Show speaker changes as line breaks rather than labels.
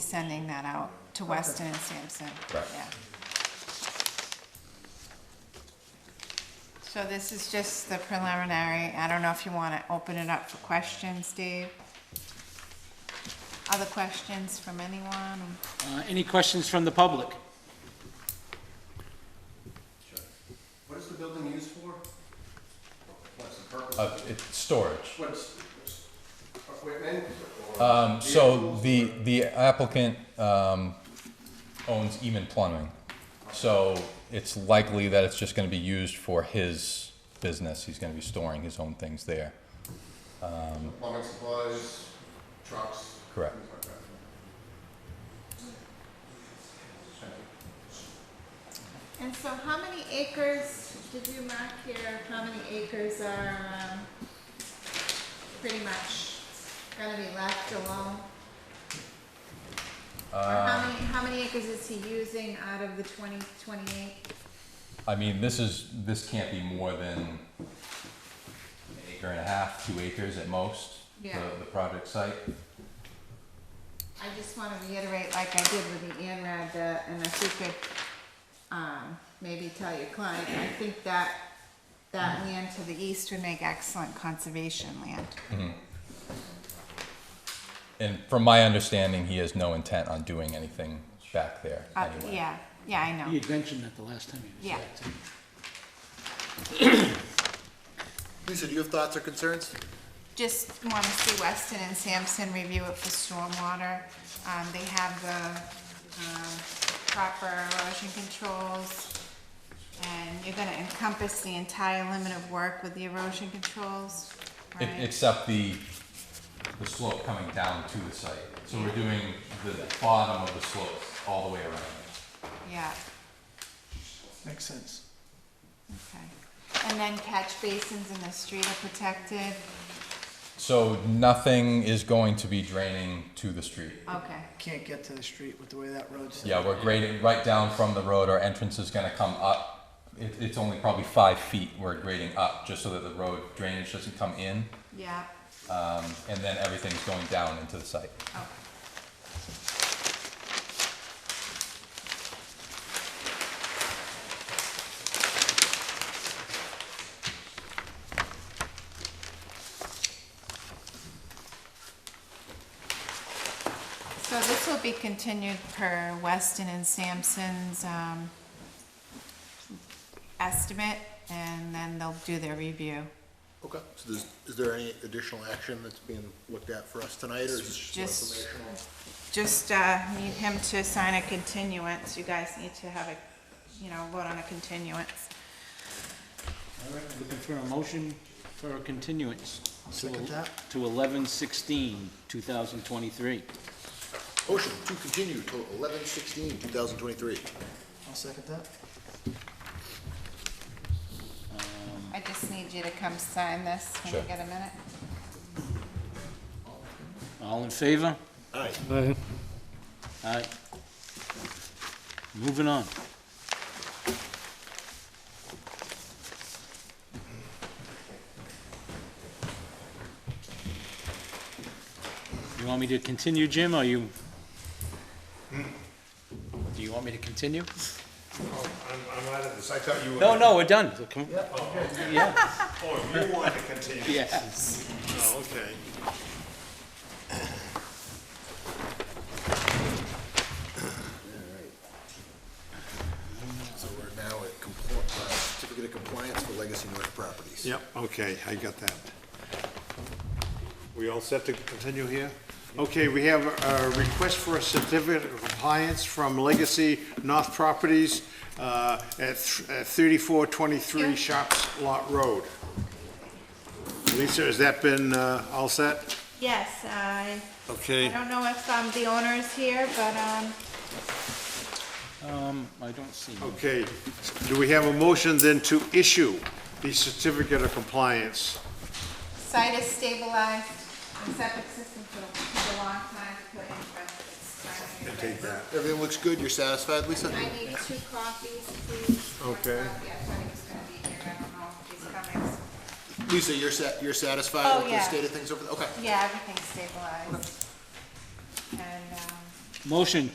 sending that out to Weston and Sampson.
Right.
Yeah. So this is just the preliminary, I don't know if you wanna open it up for questions, Dave? Other questions from anyone?
Uh, Any questions from the public?
What is the building used for? What's the purpose?
Uh, it's storage.
What's, equipment?
Um, so the, the applicant, um, owns Eman Plumbing. So it's likely that it's just gonna be used for his business. He's gonna be storing his own things there.
Um, Plumbing supplies, trucks?
Correct.
things like that.
And so how many acres, did you mark here, how many acres are, um, pretty much gonna be left alone? Or how many, how many acres is he using out of the twenty, twenty-eight?
I mean, this is, this can't be more than an acre and a half, two acres at most. the-
Yeah.
The project site.
I just wanna reiterate, like I did with the Anrad, that, and if you could, um, maybe tell your client, I think that, that land to the east would make excellent conservation land.
And from my understanding, he has no intent on doing anything back there
Uh,
anyway.
yeah, yeah, I
He
know.
had mentioned that the last time he
Yeah.
was back. too.
Lisa, do you have thoughts or concerns?
Just wanna see Weston and Sampson review it for stormwater. Um, they have the, um, proper erosion controls. And you're gonna encompass the entire limit of work with the erosion controls,
E-
right?
Except the, the slope coming down to the site. So we're doing the bottom of the slope all the way around.
Yeah.
Makes sense.
Okay, and then catch basins in the street are protected,
So nothing is going to be draining to the street.
okay,
Can't get to the street with the way that road's. set.
Yeah, we're grading right down from the road. Our entrance is gonna come up. It, it's only probably five feet we're grading up, just so that the road drainage doesn't come in.
yeah,
Um, and then everything's going down into the site.
okay. So this will be continued per Weston and Sampson's, um, estimate, and then they'll do their review.
Okay, so there's, is there any additional action that's being looked at for us tonight, or is this
Just-
just informational?
Just, uh, need him to sign a continuance, you guys need to have a, you know, vote on a continuance.
All right, Looking for a motion for a continuance. to
second that.
To eleven sixteen, two thousand twenty-three.
Motion to continue till eleven sixteen, two thousand twenty-three.
I'll second that.
I just need you to come sign this when you
Sure.
get a minute.
All in favor?
All right,
All right. Moving on. You want me to continue, Jim, or you? Do you want me to continue?
Oh, I'm, I'm out of this, I thought you were.
No, no, we're done. So come- Yeah,
Oh, you want to continue?
yes.
Oh, okay.
so we're now at compl- uh, certificate of compliance for Legacy North Properties.
Yep, okay, I got that. We all set to continue here? Okay, we have a request for a certificate of compliance from Legacy North Properties uh, at thirty-four twenty-three Shops Lot Road. Lisa, has that been uh, all set?
Yes, I, I
Okay.
don't know if, um, the owner is here, but, um,
Um, I don't see. him.
Okay, do we have a motion then to issue the certificate of compliance?
site is stabilized, the septic system took took a long time to put in, but it's finally.
Everything looks good, you're satisfied, Lisa?
I need two copies, please. One
Okay.
copy, I thought he was gonna be here, I don't know if he's coming.
Lisa, you're sa- you're
Oh,
satisfied with the
yeah.
state of things over there? Okay.
Yeah, everything's stabilized. And, um,
Motion